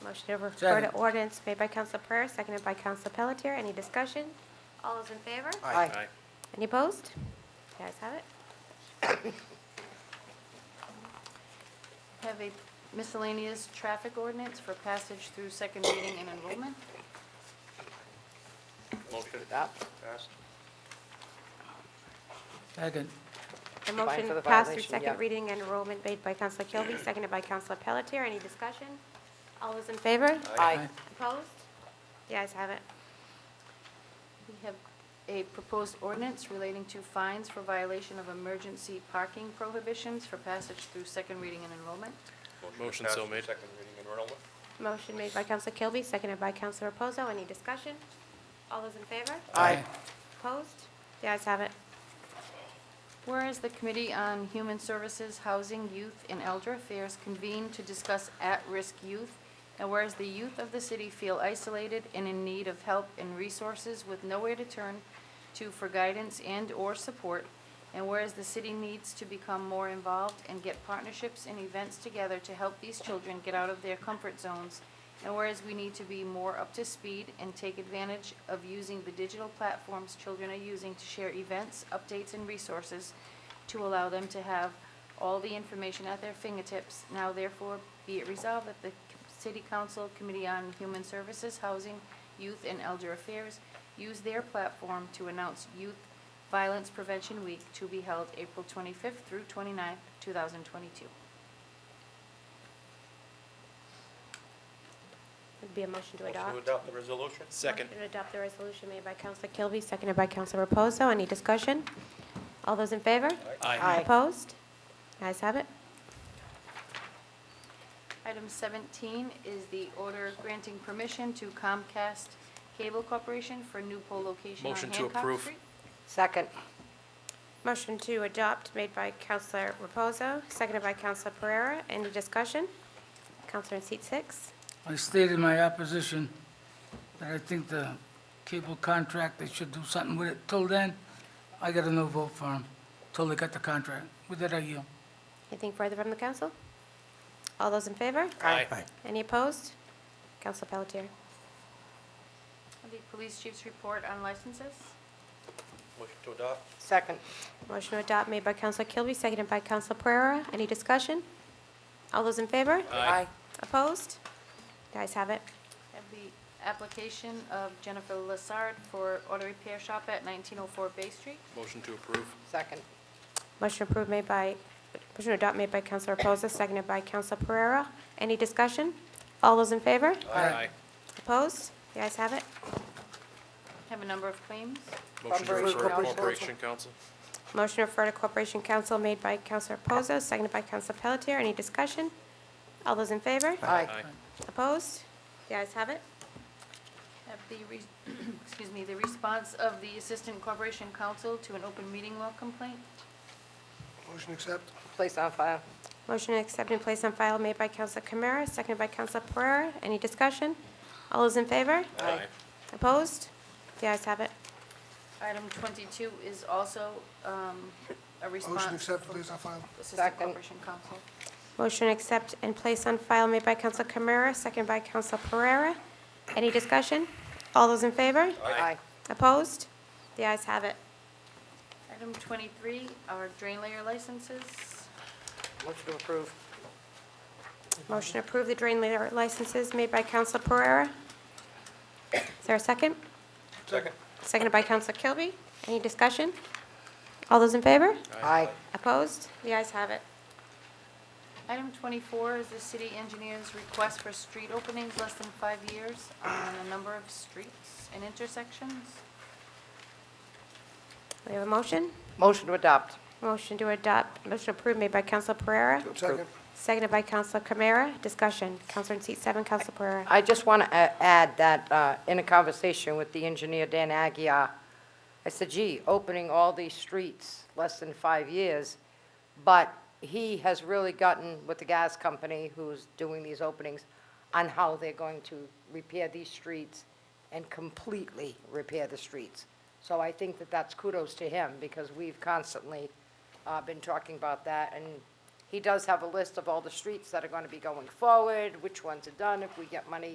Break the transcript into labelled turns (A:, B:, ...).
A: Motion to refer to
B: Second.
A: ordinance made by Counsel Pereira, seconded by Counsel Pelletier. Any discussion? All those in favor?
B: Aye.
A: Any opposed? The ayes have it.
C: Have a miscellaneous traffic ordinance for passage through second reading and enrollment.
D: Motion
E: Adopt.
D: passed.
B: Second.
A: The
E: Fine
A: motion
E: for the
A: passed through
E: violation, yeah.
A: second reading and enrollment made by Counsel Kilby, seconded by Counsel Pelletier. Any discussion? All those in favor?
E: Aye.
A: Opposed? The ayes have it.
C: We have a proposed ordinance relating to fines for violation of emergency parking prohibitions for passage through second reading and enrollment.
F: Motion
D: Passed
F: so
D: with
F: made.
D: Second reading and enrollment.
A: Motion made by Counsel Kilby, seconded by Counsel Reposo. Any discussion? All those in favor?
E: Aye.
A: Opposed? The ayes have it.
C: Whereas the Committee on Human Services, Housing, Youth, and Elder Affairs convened to discuss at-risk youth, and whereas the youth of the city feel isolated and in need of help and resources with nowhere to turn to for guidance and/or support, and whereas the city needs to become more involved and get partnerships and events together to help these children get out of their comfort zones, and whereas we need to be more up to speed and take advantage of using the digital platforms children are using to share events, updates, and resources to allow them to have all the information at their fingertips. Now therefore be it resolved that the City Council Committee on Human Services, Housing, Youth, and Elder Affairs use their platform to announce Youth Violence Prevention Week to be held April 25th through 29th, 2022.
A: Would be a motion to
D: Motion to
A: adopt.
D: adopt the resolution.
F: Second.
A: Motion to adopt the resolution made by Counsel Kilby, seconded by Counsel Reposo. Any discussion? All those in favor?
E: Aye.
A: Opposed? Ayes have it.
C: Item 17 is the order granting permission to Comcast Cable Corporation for new pole location on
F: Motion to
C: Hancock
F: approve.
C: Street.
E: Second.
A: Motion to adopt made by Counselor Reposo, seconded by Counselor Pereira. Any discussion? Counselor in seat six.
B: I stated my opposition, that I think the cable contract, they should do something with it. Till then, I got a no vote for them, till they got the contract. With that, I yield.
A: Anything further from the council? All those in favor?
F: Aye.
A: Any opposed? Counselor Pelletier.
C: The police chief's report on licenses.
D: Motion to adopt.
E: Second.
A: Motion to adopt made by Counselor Kilby, seconded by Counselor Pereira. Any discussion? All those in favor?
F: Aye.
A: Opposed? The ayes have it.
C: I Have the application of Jennifer Lassard for auto repair shop at 1904 Bay Street.
F: Motion to approve.
E: Second.
A: Motion approved made by, motion to adopt made by Counselor Reposo, seconded by Counselor Pereira. Any discussion? All those in favor?
B: Aye.
A: Opposed? The ayes have it.
C: Have a number of claims.
F: Motion to
E: Bunbury
F: refer to
E: Corporation.
F: Corporation Council.
A: Motion to refer to Corporation Council made by Counselor Reposo, seconded by Counselor Pelletier. Any discussion? All those in favor?
F: Aye.
A: Opposed? The ayes have it.
C: Have the, re- excuse me, the response of the Assistant Corporation Counsel to an open meeting law complaint.
D: Motion accept.
E: Place on file.
A: Motion to accept and place on file made by Counselor Camara, seconded by Counselor Pereira. Any discussion? All those in favor?
E: Aye.
A: Opposed? The ayes have it.
C: Item 22 is also um, a response.
G: Motion accept,
C: from
G: place on file.
C: Assistant
E: Second.
C: Corporation Counsel.
A: Motion to accept and place on file made by Counselor Camara, seconded by Counselor Pereira. Any discussion? All those in favor?
E: Aye.
A: Opposed? The ayes have it.
C: Item 23 are drain layer licenses.
E: Motion to approve.
A: Motion to approve the drain layer licenses made by Counselor Pereira. Is there a second?
D: Second.
A: Seconded by Counselor Kilby. Any discussion? All those in favor?
E: Aye.
A: Opposed? The ayes have it.
C: Item 24 is the city engineer's request for street openings less than five years on a number of streets and intersections.
A: We have a motion?
E: Motion to adopt.
A: Motion to adopt, motion approved made by Counselor Pereira,
G: Second.
A: seconded by Counselor Camara. Discussion. Counselor in seat seven, Counselor Pereira.
E: I just want to add that uh, in a conversation with the engineer, Dan Agia, I said, gee, opening all these streets less than five years, but he has really gotten with the gas company who's doing these openings on how they're going to repair these streets and completely repair the streets. So I think that that's kudos to him because we've constantly uh, been talking about that and He does have a list of all the streets that are going to be going forward, which ones are done, if we get money